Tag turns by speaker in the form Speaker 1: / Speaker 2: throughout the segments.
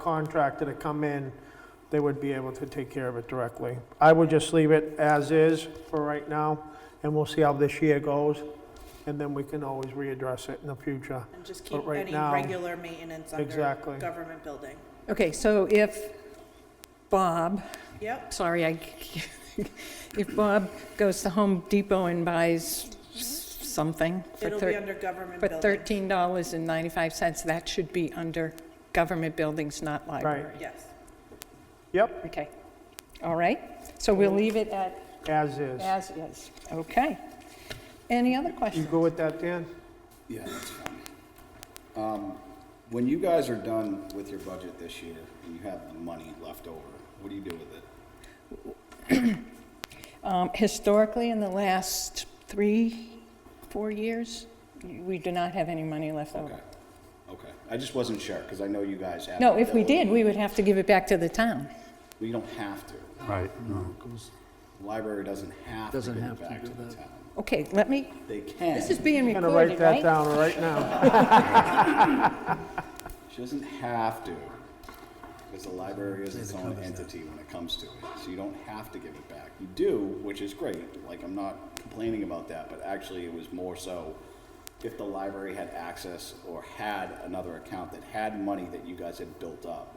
Speaker 1: contractor to come in, they would be able to take care of it directly. I would just leave it as is for right now, and we'll see how this year goes, and then we can always readdress it in the future.
Speaker 2: And just
Speaker 1: But
Speaker 2: keep
Speaker 1: right
Speaker 2: any
Speaker 1: now-
Speaker 2: regular maintenance under
Speaker 1: Exactly.
Speaker 2: government building.
Speaker 3: Okay, so if Bob,
Speaker 2: Yep,
Speaker 3: sorry, I, if Bob goes to Home Depot and buys s- something for
Speaker 2: it'll be
Speaker 3: thir-
Speaker 2: under government
Speaker 3: for
Speaker 2: building.
Speaker 3: $13.95, that should be under government buildings, not library.
Speaker 2: Yes.
Speaker 1: Yep,
Speaker 3: Okay, all right, so we'll leave it at
Speaker 1: as is.
Speaker 3: as is, okay. Any other
Speaker 1: You
Speaker 3: questions?
Speaker 1: go with that, Dan?
Speaker 4: Yeah, that's fine. Um, when you guys are done with your budget this year and you have the money left over, what do you do with it?
Speaker 3: Um, Historically, in the last three, four years, we do not have any money left over.
Speaker 4: Okay, okay. I just wasn't sure, because I know you guys have.
Speaker 3: No,
Speaker 4: the
Speaker 3: if we did,
Speaker 4: ability.
Speaker 3: we would have to give it back to the town.
Speaker 4: We don't have to.
Speaker 5: Right,
Speaker 4: The Library doesn't have to
Speaker 5: Doesn't
Speaker 4: give
Speaker 5: have
Speaker 4: it
Speaker 5: to
Speaker 4: back
Speaker 5: do
Speaker 4: to the
Speaker 5: that.
Speaker 4: town.
Speaker 3: Okay, let me,
Speaker 4: They can.
Speaker 3: this is being
Speaker 1: I'm gonna
Speaker 3: recorded,
Speaker 1: write that
Speaker 3: right?
Speaker 1: down right now.
Speaker 4: She doesn't have to, because the library is its own entity when it comes to it. So you don't have to give it back. You do, which is great. Like, I'm not complaining about that, but actually, it was more so if the library had access or had another account that had money that you guys had built up.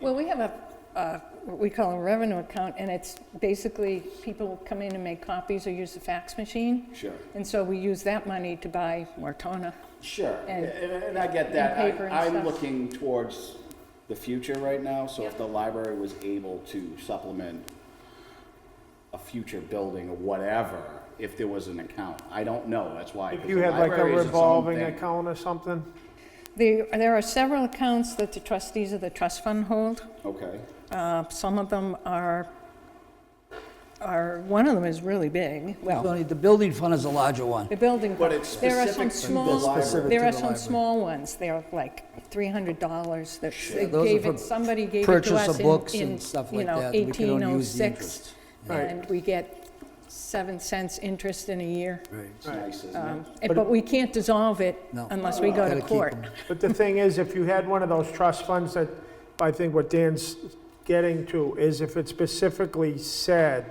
Speaker 3: Well, we have a, uh, what we call a revenue account, and it's basically, people come in and make copies or use the fax machine.
Speaker 4: Sure.
Speaker 3: And so we use that money to buy Mortona.
Speaker 4: Sure,
Speaker 3: And-
Speaker 4: and, and I get that.
Speaker 3: and paper and
Speaker 4: I, I'm
Speaker 3: stuff.
Speaker 4: looking towards the future right now, so if the library was able to supplement a future building or whatever, if there was an account, I don't know, that's why.
Speaker 1: If
Speaker 4: 'cause
Speaker 1: you
Speaker 4: the
Speaker 1: had like a
Speaker 4: library is its own
Speaker 1: revolving
Speaker 4: thing.
Speaker 1: account or something,
Speaker 3: There, there are several accounts that the trustees of the trust fund hold.
Speaker 4: Okay,
Speaker 3: Uh, Some of them are, are, one of them is really big, well,
Speaker 5: Tony, the building fund is a larger one.
Speaker 3: the building.
Speaker 4: But it's
Speaker 3: There are some
Speaker 4: specific to the library.
Speaker 3: small,
Speaker 4: Specific
Speaker 3: there
Speaker 5: to
Speaker 3: are
Speaker 5: the
Speaker 3: some
Speaker 5: library.
Speaker 3: small ones, they're like $300 that they
Speaker 5: Those are
Speaker 3: gave
Speaker 5: for
Speaker 3: it, somebody gave it to
Speaker 5: purchase
Speaker 3: us
Speaker 5: of
Speaker 3: in,
Speaker 5: books
Speaker 3: in,
Speaker 5: and stuff
Speaker 3: you
Speaker 5: like
Speaker 3: know,
Speaker 5: that. We can only use the
Speaker 3: 1806.
Speaker 5: interest.
Speaker 1: Right.
Speaker 3: And we get 7 cents interest in a year.
Speaker 4: it's nice, isn't it?
Speaker 3: Um, and- But we can't dissolve it
Speaker 5: No.
Speaker 3: unless we go
Speaker 5: Gotta
Speaker 3: to
Speaker 5: keep
Speaker 3: court.
Speaker 5: 'em.
Speaker 1: But the thing is, if you had one of those trust funds that, I think what Dan's getting to is if it specifically said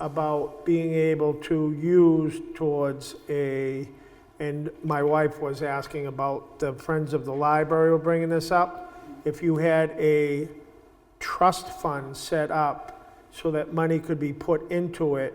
Speaker 1: about being able to use towards a, and my wife was asking about the Friends of the Library were bringing this up, if you had a trust fund set up so that money could be put into it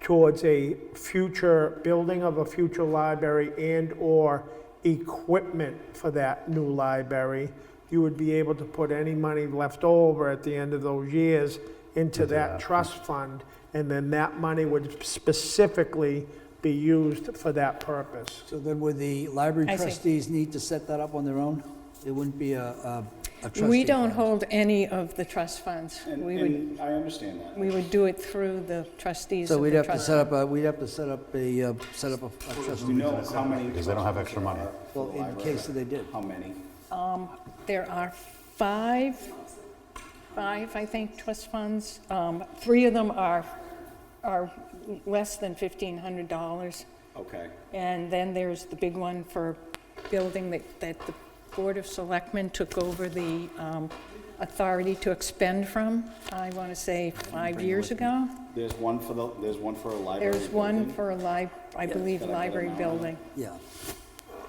Speaker 1: towards a future building of a future library and/or equipment for that new library, you would be able to put any money left over at the end of those years into that trust fund, and then that money would specifically be used for that purpose.
Speaker 5: So then would the library
Speaker 3: I see.
Speaker 5: trustees need to set that up on their own? It wouldn't be a, a a trustee.
Speaker 3: We don't
Speaker 5: fund.
Speaker 3: hold any of the trust funds.
Speaker 4: And,
Speaker 3: We would,
Speaker 4: and I understand that.
Speaker 3: we would do it through the trustees
Speaker 5: So
Speaker 3: of
Speaker 5: we'd
Speaker 3: the
Speaker 5: have to
Speaker 3: trust.
Speaker 5: set up, a. we'd have to set up a, uh, set up a a
Speaker 4: Do you
Speaker 5: trustee.
Speaker 4: know how many? Because
Speaker 6: they don't have extra money.
Speaker 5: Well, in case that they did.
Speaker 4: How many?
Speaker 3: There are five, five, I think, trust funds. Um, Three of them are, are less than $1,500.
Speaker 4: Okay,
Speaker 3: And then there's the big one for building that, that the Board of Selectmen took over the um, authority to expend from, I want to say, five years ago.
Speaker 4: there's one for the, there's one for a library.
Speaker 3: There's one
Speaker 4: building.
Speaker 3: for a li, I believe,
Speaker 4: Did I get
Speaker 3: library
Speaker 4: it now?
Speaker 3: building.
Speaker 5: Yeah.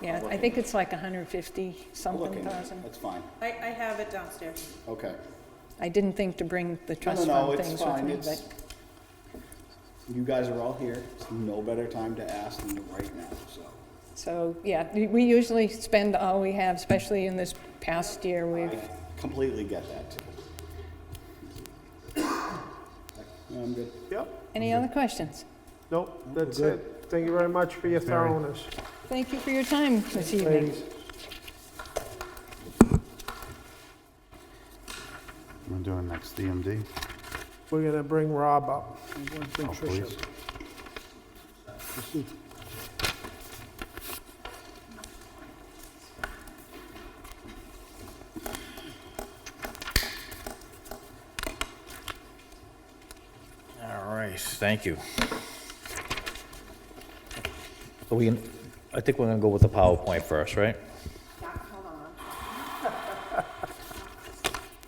Speaker 3: Yeah, I think it's like 150 something
Speaker 4: Looking, at it.
Speaker 3: thousand.
Speaker 4: that's fine,
Speaker 2: I, I have it downstairs.
Speaker 4: okay.
Speaker 3: I didn't think to bring the
Speaker 4: No, no,
Speaker 3: trust
Speaker 4: no,
Speaker 3: fund
Speaker 4: it's
Speaker 3: things with
Speaker 4: fine,
Speaker 3: me,
Speaker 4: it's,
Speaker 3: but,
Speaker 4: you guys are all here, it's no better time to ask than right now, so.
Speaker 3: so, yeah, we- we usually spend all we have, especially in this past year,
Speaker 4: I
Speaker 3: we've,
Speaker 4: completely get that too. No, I'm good.
Speaker 1: Yep,
Speaker 3: any other questions?
Speaker 1: nope, that's it. Thank you very much for your thoroughness,
Speaker 3: Thank you for your time this evening.
Speaker 1: ladies.
Speaker 6: I'm doing next DMD,
Speaker 1: We're gonna bring Rob up.
Speaker 6: oh, please.
Speaker 7: All right, thank you. So we, I think we're gonna go with the PowerPoint first, right?